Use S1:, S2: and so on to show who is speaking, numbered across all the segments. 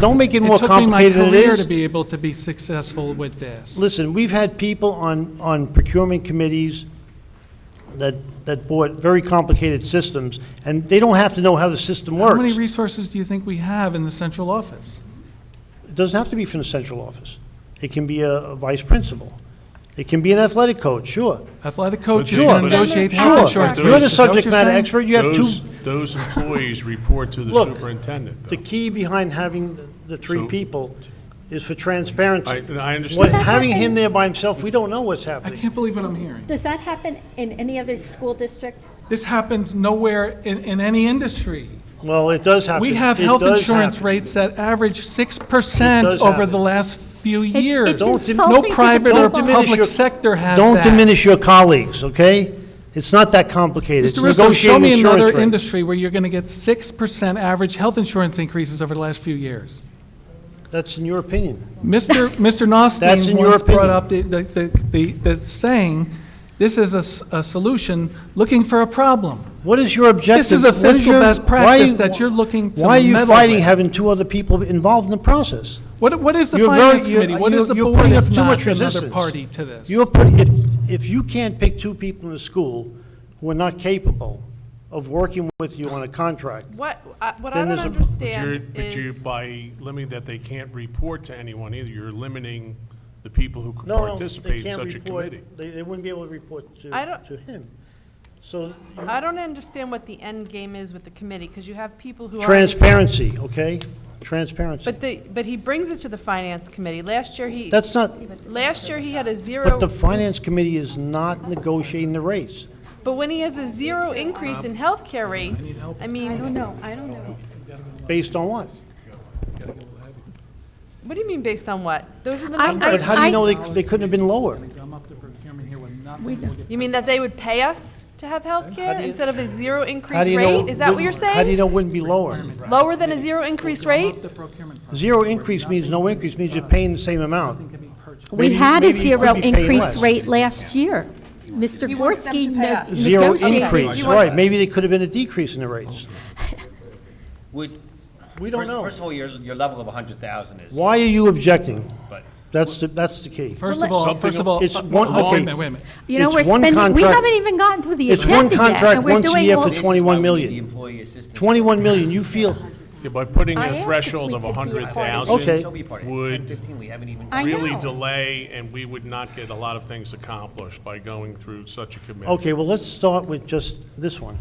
S1: Don't make it more
S2: It took me my
S1: complicated than it
S2: career to
S1: is.
S2: be able to be successful with this.
S1: Listen, we've had people on, on procurement committees that, that bought very complicated systems, and they don't have to know how the system
S2: How many
S1: works.
S2: resources do you think we have in the central office?
S1: It doesn't have to be from the central office. It can be a a vice principal. It can be an athletic coach, sure.
S2: Athletic coaches
S3: Sure,
S2: are going to
S3: but-
S2: negotiate
S3: Sure,
S2: health insurance.
S3: but
S1: Sure, you're
S2: rates.
S1: the
S2: Is that what
S1: subject
S2: you're
S1: matter
S2: saying?
S1: expert, you have two,
S3: Those- Those employees report to the
S1: Look,
S3: superintendent,
S1: the
S3: though.
S1: key behind having the three
S3: So-
S1: people is for transparency.
S3: I, I
S1: What-
S3: understand.
S4: that
S1: Having
S4: happen?
S1: him there by himself, we don't know what's
S2: I
S1: happening.
S2: can't believe what I'm hearing.
S4: Does that happen in any other school district?
S2: This happens nowhere in, in any industry.
S1: Well, it does happen.
S2: We have
S1: It
S2: health
S1: does
S2: insurance
S1: happen.
S2: rates that average
S1: It
S2: 6%
S1: does
S2: over
S1: happen.
S2: the last few years.
S4: it's Don't dim-
S2: No
S4: insulting to the
S2: private or
S4: Don't diminish
S2: public
S1: your-
S2: sector has
S1: Don't
S2: that.
S1: diminish your colleagues, okay? It's not that complicated. It's
S2: Mr. Russo, show
S1: negotiating
S2: me
S1: insurance
S2: another
S1: rates.
S2: industry where you're going to get 6% average health insurance increases over the last few years.
S1: That's in your opinion.
S2: Mr. Mr.
S1: That's in
S2: Nostine
S1: your
S2: once brought
S1: opinion.
S2: up the, the, the- the, the saying, this is a, s- a solution looking for a problem.
S1: What is your objective?
S2: This is a
S1: What is
S2: fiscal
S1: your-
S2: best
S1: why are
S2: practice
S1: you-
S2: that you're looking to
S1: Why are you
S2: meddle
S1: fighting
S2: with.
S1: having two other people involved in the process?
S2: What, what is the
S1: You're very-
S2: finance
S1: you're-
S2: committee? What
S1: you're-
S2: is the
S1: you're
S2: board
S1: putting up
S2: if
S1: too
S2: not
S1: much
S2: another
S1: resistance.
S2: party to this?
S1: You're put, if, if you can't pick two people in the school who are not capable of working with you on a contract,
S5: What, I- what I
S1: Then
S5: don't
S1: there's a-
S3: You're-
S5: understand
S3: But you,
S5: is,
S3: by limiting that they can't report to anyone either, you're limiting the people who could
S1: no, no, they
S3: participate in
S1: can't
S3: such a
S1: report,
S3: committee.
S1: they, they wouldn't be able to report to,
S5: I don't-
S1: to him. So,
S5: I don't understand what the end game is with the committee, because you have people who are.
S1: transparency, okay? Transparency.
S5: But the, but he brings it to the finance committee. Last year, he,
S1: That's not,
S5: last year, he had a zero,
S1: but the finance committee is not negotiating the rates.
S5: but when he has a zero increase in healthcare rates, I mean,
S4: No, I don't know.
S1: Based on what?
S5: what do you mean based on what? Those are the
S4: I- I-
S1: But how do
S5: numbers.
S4: I-
S1: you know they, they couldn't have been lower?
S2: Come up to procurement here with nothing.
S5: You mean that they would pay us to have healthcare instead of a zero
S1: How
S5: increase
S1: do you know?
S5: rate? Is that what you're
S1: How do you
S5: saying?
S1: know it wouldn't be lower?
S5: Lower than a zero increase rate?
S1: Zero increase means no increase, means you're paying the same amount.
S4: We
S1: Maybe-
S4: had a
S1: maybe you
S4: zero
S1: could be paying
S4: increase
S1: less.
S4: rate last year. Mr.
S5: wants them
S4: Gorski
S5: to pay
S4: ne-
S5: us.
S1: Zero
S4: negotiated.
S1: increase,
S5: You want-
S1: right, maybe there could have been a decrease in the rates.
S6: Would,
S1: We don't
S6: first,
S1: know.
S6: first of all, your, your level of a hundred thousand is.
S1: Why are you objecting?
S6: But
S1: That's the, that's the key.
S2: First of all,
S3: Something-
S2: first of all,
S1: it's
S2: uh,
S1: one-
S2: hold on
S1: okay.
S2: a minute, wait a minute.
S4: You know,
S1: It's
S4: we're
S1: one
S4: spending, we
S1: contract-
S4: haven't even gotten to the
S1: It's one
S4: agenda yet,
S1: contract
S4: and we're
S1: once a
S4: doing
S1: year
S4: all
S1: for
S6: this is
S4: 20.
S1: tw- 21
S6: why we need
S1: million.
S6: The employee assistance.
S1: 21 million, you feel,
S3: Yeah, By putting
S4: I asked
S3: a
S4: if
S3: threshold
S4: we
S3: of
S4: could be a part of it.
S1: Okay.
S3: 100,000
S6: She'll be a part of it. It's 10,
S3: would
S6: 15, we haven't even.
S4: I
S3: really
S4: know.
S3: delay, and we would not get a lot of things accomplished by going through such a committee.
S1: okay, well, let's start with just this one,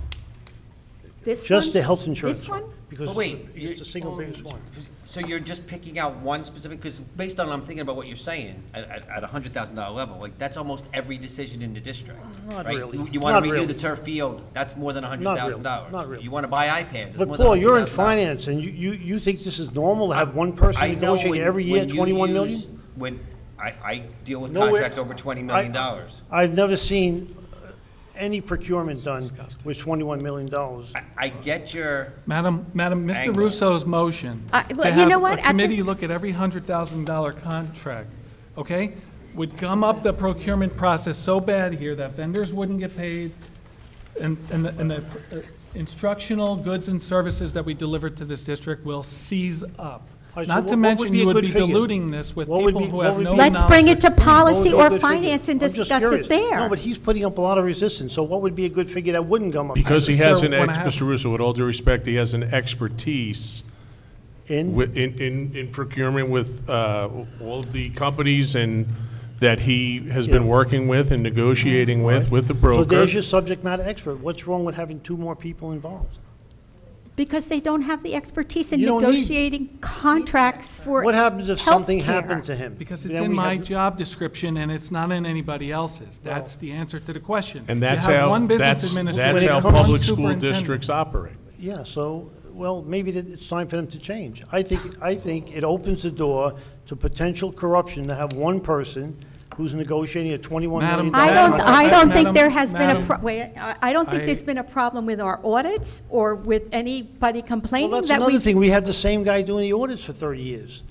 S4: This
S1: just
S4: one?
S1: the health insurance
S4: This
S1: one.
S4: one?
S1: Because
S6: But
S1: it's
S6: wait,
S1: the- it's
S6: you-
S1: the single biggest one.
S6: So you're just picking out one specific, because based on, I'm thinking about what you're saying, at, at, at a hundred thousand dollar level, like, that's almost every decision in the district.
S1: Not
S6: right?
S1: really.
S6: You- You wanna
S1: Not
S6: redo
S1: really.
S6: the turf field, that's more than a hundred
S1: Not really.
S6: thousand dollars.
S1: Not really.
S6: You wanna buy iPads, it's more
S1: But
S6: than a
S1: Paul, you're in
S6: hundred thousand dollars.
S1: finance, and you, you, you think this is normal to have one person
S6: I know
S1: negotiate
S6: when-
S1: every year
S6: when you
S1: 21 million?
S6: use- When, I, I deal with
S1: No way-
S6: contracts over twenty million dollars.
S1: I've never seen any procurement done with $21 million.
S6: I, I get your,
S2: Madam, Madam, Mr.
S6: Angle.
S2: Russo's motion
S4: I- Uh, well,
S2: to
S4: you
S2: have
S4: know what?
S2: a
S4: At the-
S2: committee look at every hundred thousand dollar contract, okay, would gum up the procurement process so bad here that vendors wouldn't get paid, and, and the, and the uh, instructional goods and services that we deliver to this district will seize up.
S1: right, so
S2: Not
S1: what- what
S2: to mention,
S1: would be a
S2: you would
S1: good
S2: be
S1: figure?
S2: diluting this with
S1: What would
S2: people
S1: be-
S2: who
S1: what
S2: have
S1: would
S2: no
S1: be-
S2: knowledge.
S4: Let's bring it to policy
S1: What would
S4: or
S1: be a good figure?
S4: finance and
S1: I'm just
S4: discuss it
S1: curious.
S4: there.
S1: No, but he's putting up a lot of resistance, so what would be a good figure that wouldn't gum up?
S3: Because he has
S2: Sir,
S3: an,
S2: when I
S3: ex-
S2: have-
S3: Mr. Russo, with all due respect, he has an expertise
S1: In,
S3: wi- in, in in procurement with uh, all of the companies and, that he has been
S1: Yeah.
S3: working with and negotiating with, with the
S1: so
S3: broker.
S1: there's your subject matter expert. What's wrong with having two more people involved?
S4: Because they don't have the expertise in
S1: You don't need-
S4: negotiating contracts for
S1: What happens if something
S4: healthcare.
S1: happened to him?
S2: Because it's
S1: Then
S2: in
S1: we
S2: my
S1: have-
S2: job description and it's not in anybody else's. That's the answer to the question.
S3: And that's
S2: You have
S3: how,
S2: one business
S3: that's,
S2: administrator,
S3: that's
S1: When it
S3: how
S1: comes-
S3: public
S2: one
S3: school
S2: superintendent.
S3: districts operate.
S1: Yeah, so, well, maybe that it's time for them to change. I think, I think it opens the door to potential corruption to have one person who's negotiating a $21 million.
S2: Madam,
S4: I don't,
S2: Madam-
S4: I don't think there
S2: Madam-
S4: has been a,
S2: Madam-
S4: pro- wait, I I don't think
S2: I-
S4: there's been a problem with our audits or with anybody
S1: Well,
S4: complaining
S1: that's
S4: that we.
S1: another thing, we had the same guy doing the audits for 30 years,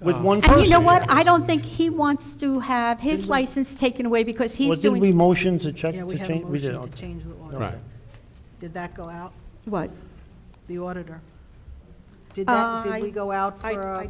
S1: with one person.
S4: And you know what? I don't think he wants to have his license taken away because
S1: Well,
S4: he's
S1: did we
S4: doing,
S1: motion to check,
S7: Yeah,
S1: to
S7: we had a
S1: change? did.
S7: motion to
S1: okay.
S7: change the auditor.
S3: Right.
S7: Did that go out,
S4: what?
S7: the auditor? Did that, did
S4: I-
S7: we go out for
S4: Uh, I-
S7: a?
S4: I